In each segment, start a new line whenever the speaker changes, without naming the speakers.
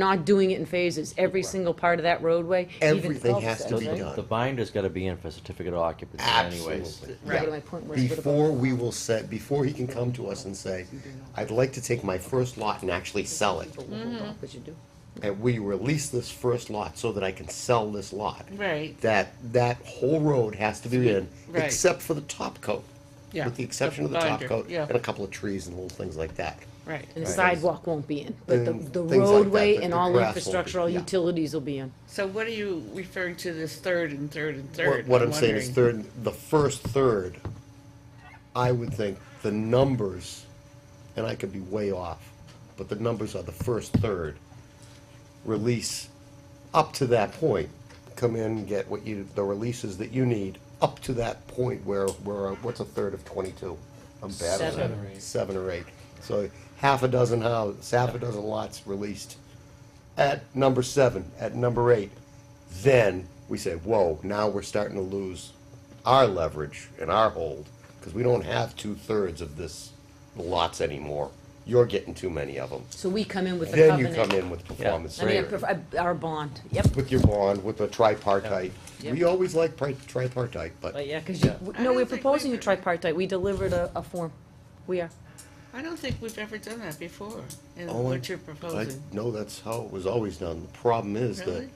not doing it in phases, every single part of that roadway, even
Everything has to be
cul-de-sacs, right?
done.
The binder's gotta be in for certificate of occupancy anyways.
Absolutely.
Yeah,
yeah.
but my point was, what about,
Before we will set, before he can come to us and say, I'd like to take my first lot and actually sell it.
what you do?
And we release this first lot so that I can sell this lot.
Right.
That, that whole road has to be in,
Right.
except for the top coat.
Yeah,
With the exception of the top
binder,
coat
yeah.
and a couple of trees and little things like that.
Right.
And the sidewalk won't be in, but the,
And
the
things like that,
roadway
but
and
the
all
grass won't be,
infrastructure, all
yeah.
utilities will be in.
So what are you referring to this third and third and
What,
third?
what I'm saying is
wondering.
third, the first third, I would think the numbers, and I could be way off, but the numbers are the first third. Release up to that point, come in, get what you, the releases that you need, up to that point where, where, what's a third of twenty-two? I'm bad at that.
Seven.
or eight.
Seven or eight. So half a dozen houses, half a dozen lots released at number seven, at number eight, then we say, whoa, now we're starting to lose our leverage and our hold, because we don't have two-thirds of this lots anymore. You're getting too many of them.
So we come in with the
Then you
covenant.
come in with performance
I mean, I
standards,
prefer- our bond, yep,
with your bond, with the tripartite. We
Yep.
always like pri- tripartite, but
but yeah, cause you,
I
no,
don't
we're
think
proposing a
we've-
tripartite, we delivered a, a form, we are.
I don't think we've ever done that before, in
Oh, I-
what you're
I
proposing.
know that's how it was always done. The problem is that,
Really?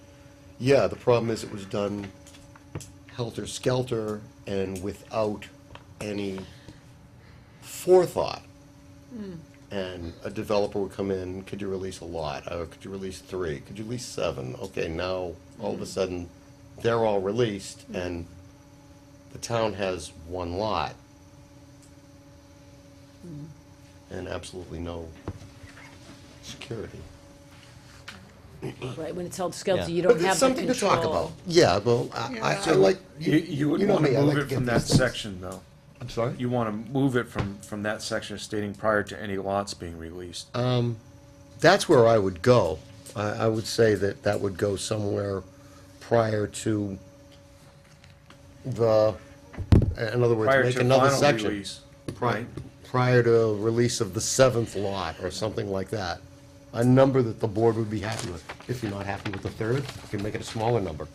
yeah, the problem is it was done helter-skelter and without any forethought. And a developer would come in, could you release a lot? Oh, could you release three? Could you release seven? Okay, now, all of a sudden, they're all released and the town has one lot. And absolutely no security.
Right, when it's held skelter,
Yeah.
you
But
don't
there's
have the control.
something to talk about. Yeah, well, I, I, I like,
You, you would
know
wanna
me, I like
move
to
it
get
from that
these things.
section, though.
I'm sorry?
You wanna move it from, from that section stating prior to any lots being released.
Uh, That's where I would go. I, I would say that that would go somewhere prior to the, in other words,
Prior
make
to
another
final
section.
release,
Pri-
right?
Prior to release of the seventh lot or something like that. A number that the board would be happy with. If you're not happy with the third, you can make it a smaller number.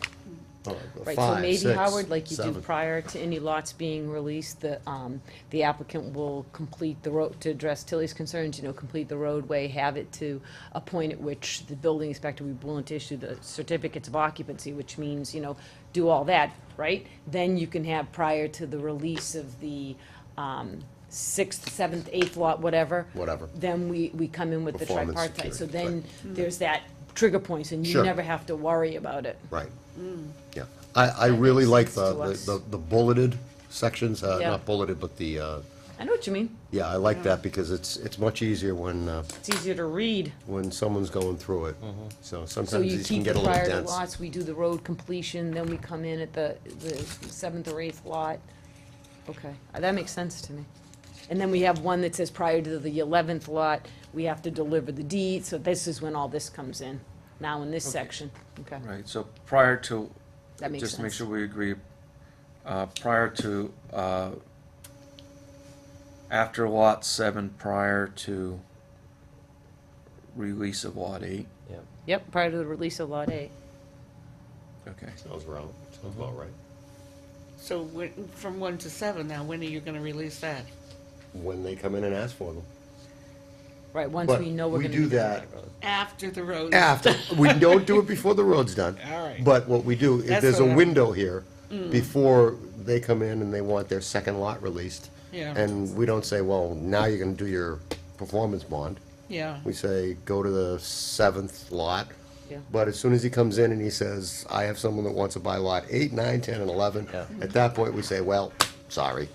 Uh,
Right, so
five,
maybe
six,
Howard, like you do
seven.
prior to any lots being released, the, um, the applicant will complete the road, to address Tilly's concerns, you know, complete the roadway, have it to a point at which the building inspector will be willing to issue the certificates of occupancy, which means, you know, do all that, right? Then you can have prior to the release of the, um, sixth, seventh, eighth lot, whatever.
Whatever.
Then we, we come in with the
Performance
tripartite, so
security,
then there's that trigger points, and you
Sure.
never have to worry about it.
Right. Yeah. I, I really like
Mm. sense
the,
to
the-
us.
the the bulleted sections, uh,
Yeah.
not bulleted, but the, uh,
I know what you mean.
yeah, I like that because it's, it's much easier when, uh,
It's easier to read.
when someone's going through it.
Mm-hmm.
So
So sometimes
you
these can
keep
get
the
a little
prior to
dense.
lots, we do the road completion, then we come in at the, the seventh or eighth lot. Okay, Uh, that makes sense to me. And then we have one that says prior to the eleventh lot, we have to deliver the deed, so this is when all this comes in, now in this section, okay?
Right, so prior to,
That makes
just to make
sense.
sure we agree, uh, prior to, uh, after lot seven, prior to release of lot eight,
Yep.
Yep, prior to the release of lot eight.
okay.
Sounds wrong, sounds about
Mm-hmm.
right.
So when- from one to seven now, when are you gonna release that?
When they come in and ask for them.
Right, once
But
we know we're
we
gonna
do
be doing
that
road.
After the road?
After, we don't do it before the road's done.
All right.
But what we do, if
That's
there's a
what I'm-
window here,
Mm.
before they come in and they want their second lot released.
Yeah.
And we don't say, well, now you're gonna do your performance bond.
Yeah,
We say, go to the seventh lot.
Yeah.
But as soon as he comes in and he says, I have someone that wants to buy lot eight, nine, ten, and eleven,
Yeah.
at that point, we say, well, sorry,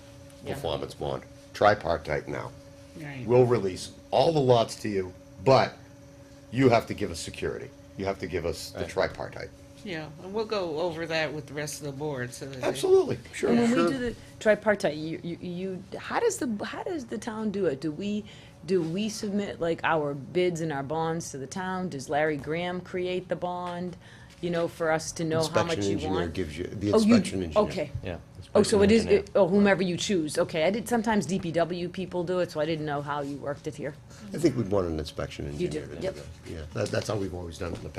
Yeah.
performance bond, tripartite now.
right.
We'll release all the lots to you, but you have to give us security. You have to give us the tripartite.
Yeah, and we'll go over that with the rest of the board, so that. they-
Absolutely, sure,
And when we
sure.
do the tripartite, you, you, you, how does the, how does the town do it? Do we, do we submit like our bids and our bonds to the town? Does Larry Graham create the bond, you know, for us to know how much
Inspection
you
engineer
want?
gives you, the
Oh, you-
inspection engineer.
Okay,
Yeah.
Oh, so it is,
engineer.
it- oh, whomever you choose, okay, I did, sometimes DPW people do it, so I didn't know how you worked it here.
I think we'd want an inspection engineer
do,
to do
yep.
that. Yeah, that, that's how we've always done it in the past.